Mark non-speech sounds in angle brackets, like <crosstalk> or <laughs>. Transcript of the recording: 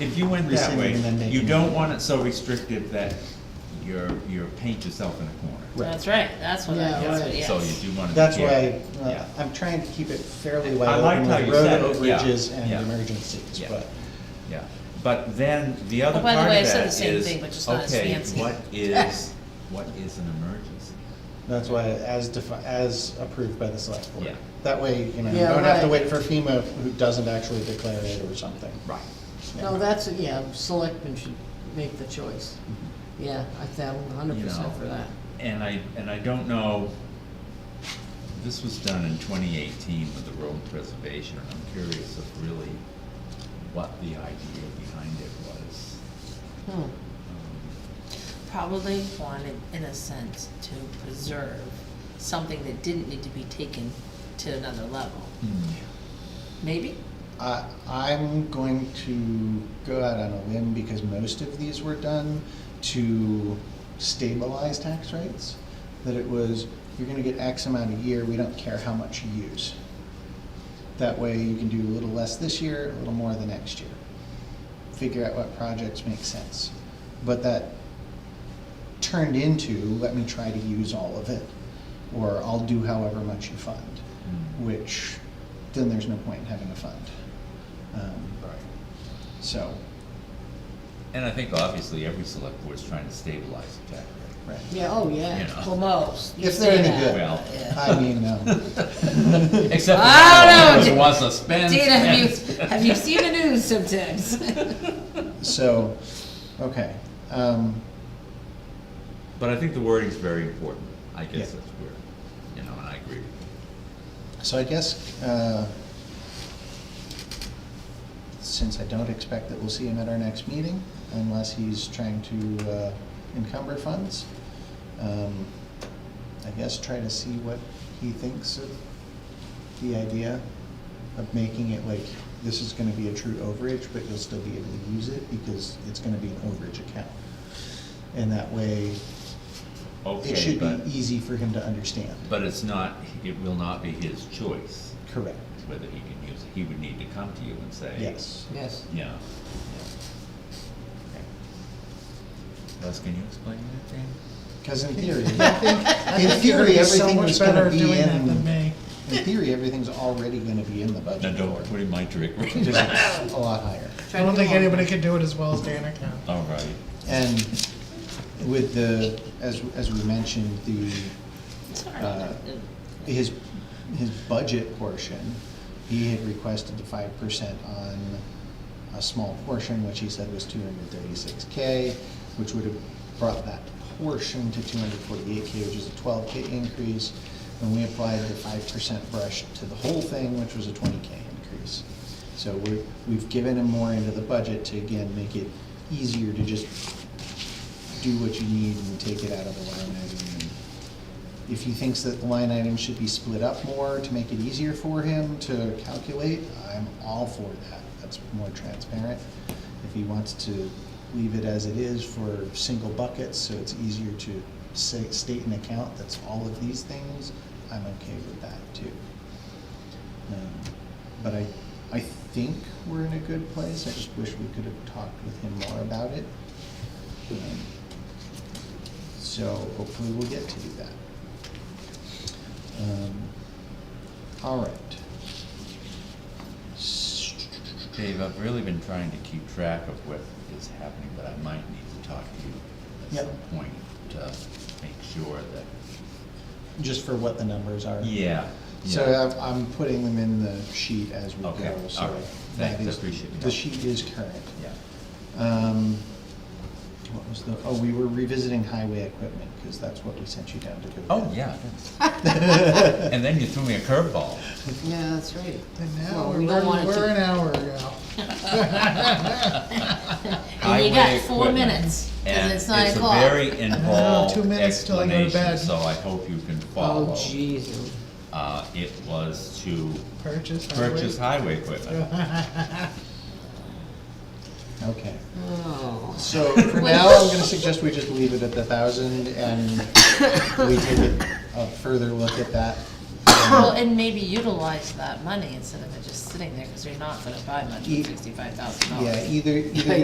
if you went that way, Rescinding and then making you it. don't want it so restrictive that you're, you're paint yourself in a corner. That's right, that's what I, Yeah, that's what, right. Oh, yes. So you do want to. That's yeah, why, uh, yeah. I'm trying to keep it fairly I wide like open how with you road said it, yeah, overages and yeah. emergencies, Yeah. but. Yeah, but then the other Oh, by part of the way, I said that the same is, thing, but just not as fancy. Okay, what is, what is an emergency? That's why, as defi, as approved by the select board. Yeah. That way, you know, you Yeah, don't have to right. wait for FEMA who doesn't actually declare it or something. Right. Yeah. No, that's, yeah, selectmen should make the choice. Mm-hmm. Yeah, I thousand, a hundred You percent know, for that. And I, and I don't know, this was done in twenty eighteen with the road preservation, and I'm curious of really what the idea behind it was. Hmm. Um, Probably wanted, in a sense, to preserve something that didn't need to be taken to another level, Um, Hmm. Hmm. maybe? I, I'm going to go out on a limb because most of these were done to stabilize tax rates. That it was, you're gonna get X amount a year, we don't care how much you use. That way you can do a little less this year, a little more the next year. Figure out what projects make sense. But that turned into, let me try to use all of it, or I'll do however much you fund, Mm. which, then there's no point in having a fund. Um, Right. So, And I think obviously every select board's trying to stabilize the tax rate. right. Yeah, oh, You yeah. know. Well, most, you If they're say any that, good. <laughs> Well. yeah. I mean, um, Except for I the don't know. who wants to spend, Dana, have you, spend. <laughs> have you seen the news sometimes? so, okay. Um, <laughs> But I think the wording's very important, I guess Yeah. that's where, you know, and I agree with you. So I guess, uh, since I don't expect that we'll see him at our next meeting, unless he's trying to uh, encumber funds, um, I guess try to see what he thinks of the idea of making it like, this is gonna be a true overage, but you'll still be able to use it because it's gonna be an overage account. And that way, it Okay, should but, be easy for him to understand. but it's not, it will not be his choice Correct, whether he can use it. He would need to come to you and say. yes. Yes. Yeah. Les, can you explain that, Dan? Because in theory, <laughs> in theory, everything was gonna be in, in theory, everything's already gonna be in the No, budget don't for put in my trick room. just a lot higher. I don't think anybody could do it as well as Dana can. <laughs> All right. And with the, as, as we mentioned, the, <laughs> Sorry. uh, his, his budget portion, he had requested the five percent on a small portion, which he said was two hundred thirty-six K, which would have brought that portion to two hundred forty-eight K, which is a twelve K increase. And we applied the five percent brush to the whole thing, which was a twenty K increase. So we're, we've given him more into the budget to again, make it easier to just do what you need and take it out of the line item and if he thinks that the line item should be split up more to make it easier for him to calculate, I'm all for that. That's more transparent. If he wants to leave it as it is for single buckets, so it's easier to say, state an account that's all of these things, I'm okay with that too. Um, But I, I think we're in a good place. I just wish we could have talked with him more about it. Um, So hopefully we'll get to do that. Um, All right. S- Dave, I've really been trying to keep track of what is happening, but I might need to talk to you at Yep. some point to make sure that, Just for what the numbers are. yeah. So yeah. I'm, I'm putting them in the sheet as we Okay, go, so. all right. that Thanks, I is- appreciate it. The sheet is current. Yeah. Um, What was the, oh, we were revisiting highway equipment, because that's what we sent you down to go. Oh, yeah. get. <laughs> And then you threw me a <laughs> curveball. Yeah, that's right. And Well, now we we're, don't want we're it we're to- an hour ago. And you Highway got four equipment. minutes, And and it's nine a o'clock. very No, involved two minutes till I go to explanation, bed. so I hope you can follow. Oh, jeez. Uh, it was to Purchase. highway. purchase highway equipment. Okay, Oh. so for now, I'm gonna suggest we just leave it at the thousand, and we take a- a further look at that. Um, Well, and maybe utilize that money instead of it just sitting there, because you're not gonna buy much Ye- for sixty-five thousand dollars. Yeah, either, either Yeah,